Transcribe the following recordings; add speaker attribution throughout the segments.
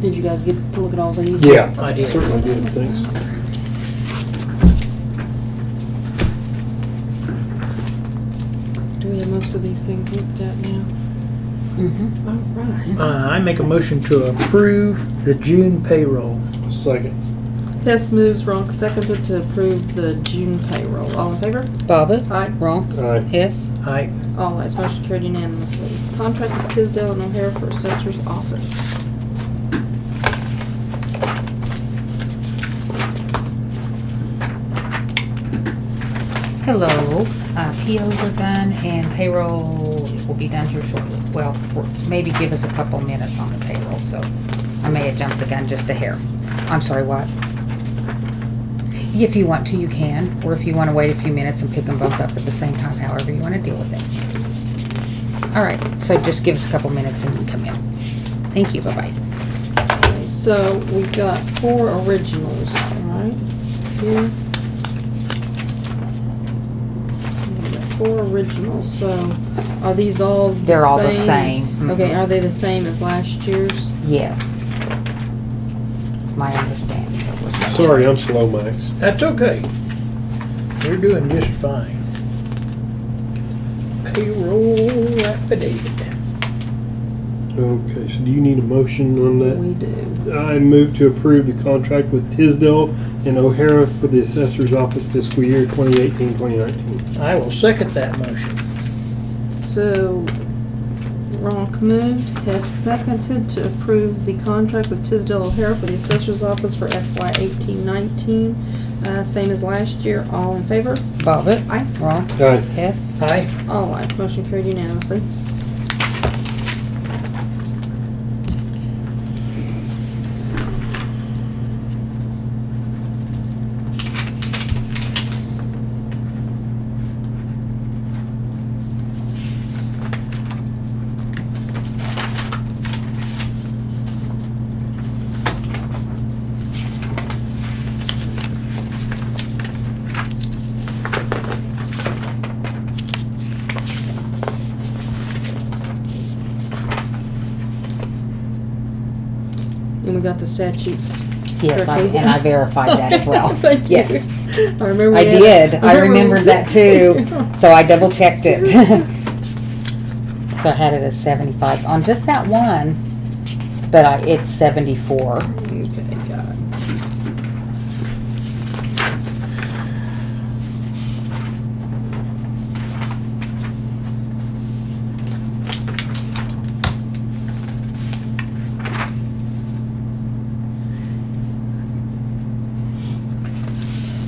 Speaker 1: Did you guys get to look at all these?
Speaker 2: Yeah.
Speaker 3: I did.
Speaker 2: Certainly did, thanks.
Speaker 4: Do we have most of these things looked at now?
Speaker 5: Mm-hmm.
Speaker 1: Mhm.
Speaker 4: All right.
Speaker 3: Uh, I make a motion to approve the June payroll.
Speaker 2: Second.
Speaker 4: Hess moves, Ronk seconded to approve the June payroll. All in favor?
Speaker 1: Bobbit.
Speaker 4: Aye.
Speaker 1: Ronk.
Speaker 2: Aye.
Speaker 1: Hess.
Speaker 3: I,
Speaker 4: All ayes, motion carried unanimously. Contract with Tisdale and O'Hare for Assessor's Office.
Speaker 5: Hello, uh, POs are done and payroll will be done here shortly. Well, maybe give us a couple minutes on the payroll, so I may have jumped the gun just a hair. I'm sorry, what? If you want to, you can, or if you want to wait a few minutes and pick them both up at the same time, however you want to deal with it. All right, so just give us a couple minutes and you can come in. Thank you, bye-bye.
Speaker 4: Okay, So we've got four originals, all right? Here. We've got Four originals, so are these all the same?
Speaker 5: They're all the same.
Speaker 4: Okay,
Speaker 5: Mhm.
Speaker 4: are they the same as last year's?
Speaker 5: Yes. My understanding. that was that.
Speaker 2: Sorry, I'm slow, Max.
Speaker 3: that's okay. We're doing just fine. Payroll affidavit.
Speaker 2: Okay, so do you need a motion on that?
Speaker 4: We do.
Speaker 2: I move to approve the contract with Tisdale and O'Hara for the assessor's office fiscal year 2018, 2019.
Speaker 3: I will second that motion.
Speaker 4: So, Ronk moved, has seconded to approve the contract with Tisdale O'Hara for the Assessor's Office for FY eighteen nineteen, uh, same as last year, all in favor?
Speaker 5: Bobbit.
Speaker 4: Aye.
Speaker 5: Wrong.
Speaker 2: Aye.
Speaker 5: Hess.
Speaker 3: Aye.
Speaker 4: All ayes, motion carried unanimously. And we got the statutes.
Speaker 5: Yes, I-
Speaker 4: correctly.
Speaker 5: and I verified that as well.
Speaker 4: Thank you.
Speaker 5: Yes.
Speaker 4: I remember.
Speaker 5: I
Speaker 4: we had-
Speaker 5: did. I remembered
Speaker 4: we-
Speaker 5: that too. So I double checked it. So I had it as seventy-five on just that one, but I, it's seventy-four.
Speaker 4: Okay, got it.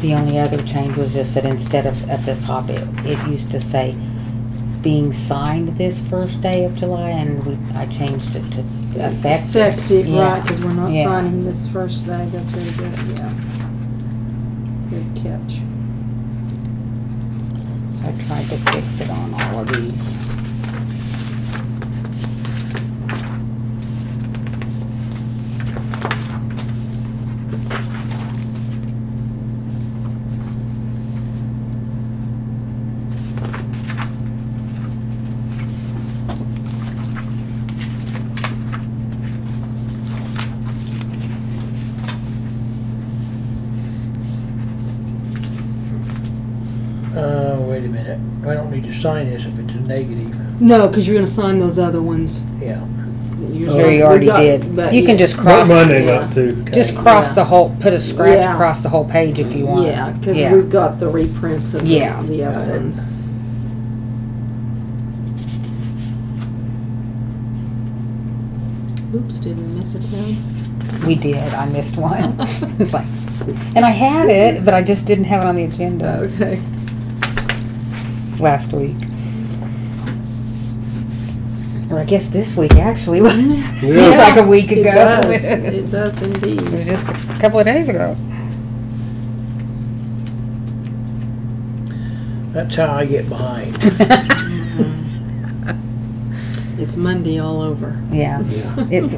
Speaker 5: The only other change was just that instead of at the top, it, it used to say being signed this first day of July and we, I changed it to effective.
Speaker 4: Effective, right,
Speaker 5: Yeah.
Speaker 4: because we're not
Speaker 5: Yeah.
Speaker 4: signing this first day, that's very good, yeah. Good catch.
Speaker 5: So I tried to fix it on all of these.
Speaker 3: Uh, wait a minute. I don't need to sign this if it's a negative.
Speaker 1: No, because you're gonna sign those other ones.
Speaker 3: Yeah.
Speaker 1: You're-
Speaker 5: There Oh, you
Speaker 4: we
Speaker 5: already
Speaker 4: got-
Speaker 5: did.
Speaker 4: but
Speaker 5: You can
Speaker 4: yeah.
Speaker 5: just
Speaker 2: Not
Speaker 5: cross,
Speaker 2: my name out too.
Speaker 5: just
Speaker 3: Okay.
Speaker 5: cross
Speaker 4: Yeah.
Speaker 5: the whole, put a scratch
Speaker 4: Yeah.
Speaker 5: across the whole page if you want.
Speaker 4: Yeah, because
Speaker 5: Yeah.
Speaker 4: we've got the reprints of the
Speaker 5: Yeah.
Speaker 4: the
Speaker 3: Got
Speaker 4: other
Speaker 3: it.
Speaker 4: ones. Oops, did we miss a town?
Speaker 5: We did. I missed one. it's like, and I had it, but I just didn't have it on the agenda
Speaker 4: Okay.
Speaker 5: last week. Or I guess this week actually. Seems like a week
Speaker 4: It
Speaker 5: ago.
Speaker 4: does,
Speaker 5: it
Speaker 4: it does indeed.
Speaker 5: was just a couple of days ago.
Speaker 3: That's how I get behind.
Speaker 4: It's Monday all over.
Speaker 5: yeah.
Speaker 2: Yeah.
Speaker 5: It,